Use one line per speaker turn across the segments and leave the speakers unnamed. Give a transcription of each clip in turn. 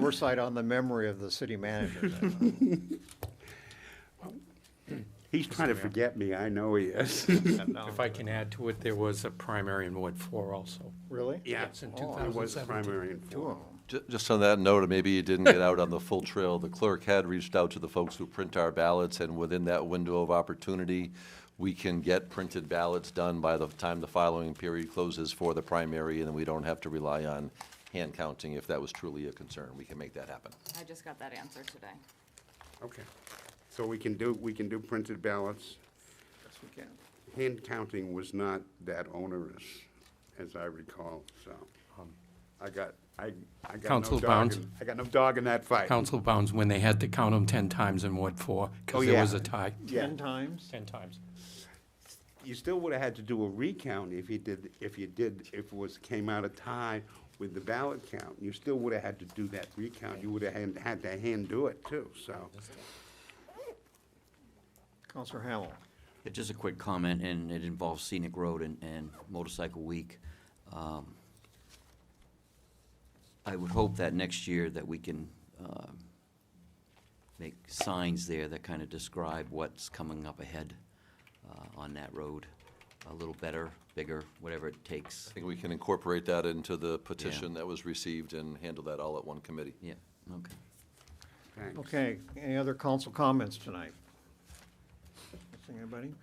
Oversight on the memory of the city manager. then.
He's trying to forget me, I know he is.
No.
If I can add to it, there was a primary in Ward 4 also.
Really?
Yes, in
Oh,
I was
2017.
primary and
Two of
four.
'em.
Ju- Just on that note, maybe you didn't get out on the full trail. The clerk had reached out to the folks who print our ballots, and within that window of opportunity, we can get printed ballots done by the time the following period closes for the primary, and we don't have to rely on hand counting if that was truly a concern. We can make that happen.
I just got that answer today.
Okay. So we can do, we can do printed ballots.
Yes, we can.
Hand counting was not that onerous, as I recall, so. I got, I, I got no
Counsel
dog,
Um, Bounds.
in- I got no dog in that fight.
Council Bounds, when they had to count them 10 times in Ward 4,
Oh,
because there was
yeah.
a tie.
Yeah,
Ten times?
10 times.
you still would have had to do a recount if you did, if you did, if it was, came out a tie with the ballot count. You still would have had to do that recount. You would have had, had to hand do it too, so.
Counselor Hamel?
Yeah, Just a quick comment, and it involves scenic road and, and motorcycle week. Um, I would hope that next year that we can um, make signs there that kind of describe what's coming up ahead uh, on that road a little better, bigger, whatever it takes.
I think we can incorporate that into the petition that was received and handle that all at one committee.
Yeah, okay.
thanks.
Okay, any other council comments tonight? Nothing, anybody?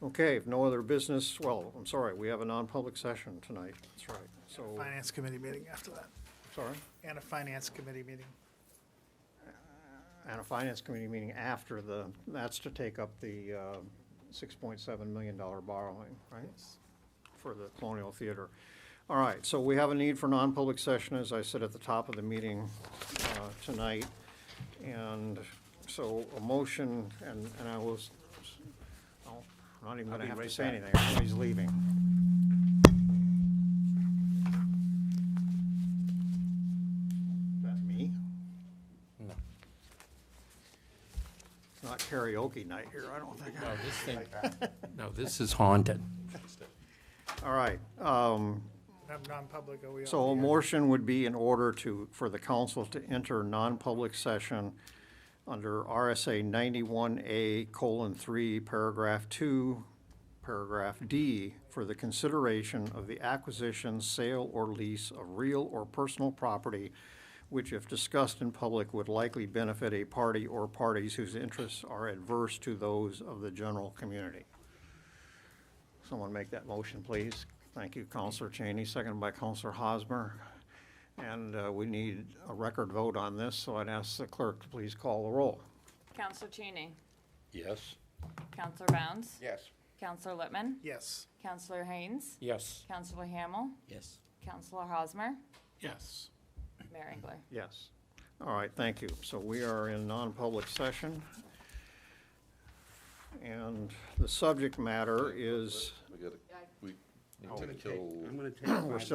Okay, if no other business, well, I'm sorry, we have a non-public session tonight, that's right. So,
Finance committee meeting after that,
sorry,
and a finance committee meeting.
and a finance committee meeting after the, that's to take up the uh, $6.7 million borrowing, right? For the Colonial Theater. All right, so we have a need for non-public session, as I said at the top of the meeting uh, tonight. And so a motion, and and I was, oh, I'm not even going to
be
have to
right
say
back.
anything, everybody's leaving. That's me?
No,
It's not karaoke night here, I don't think.
no, this thing, no, this is haunted.
All right, um,
Non- Non-public, are we on?
So a
the air?
motion would be in order to, for the council to enter non-public session under RSA ninety-one A colon three, paragraph two, paragraph D, for the consideration of the acquisition, sale, or lease of real or personal property, which if discussed in public would likely benefit a party or parties whose interests are adverse to those of the general community. Someone make that motion, please. Thank you, Counselor Cheney, seconded by Counselor Hosmer. And uh, we need a record vote on this, so I'd ask the clerk to please call the roll.
Counselor Cheney.
Yes.
Counselor Bounds.
Yes.
Counselor Littman.
Yes,
Counselor Haynes.
Yes.
Counselor Hamel.
Yes.
Counselor Hosmer.
Yes.
Mayor Engler.
Yes. All right, thank you. So we are in non-public session. And the subject matter is.
We got, we need to
I'm
kill.
gonna take five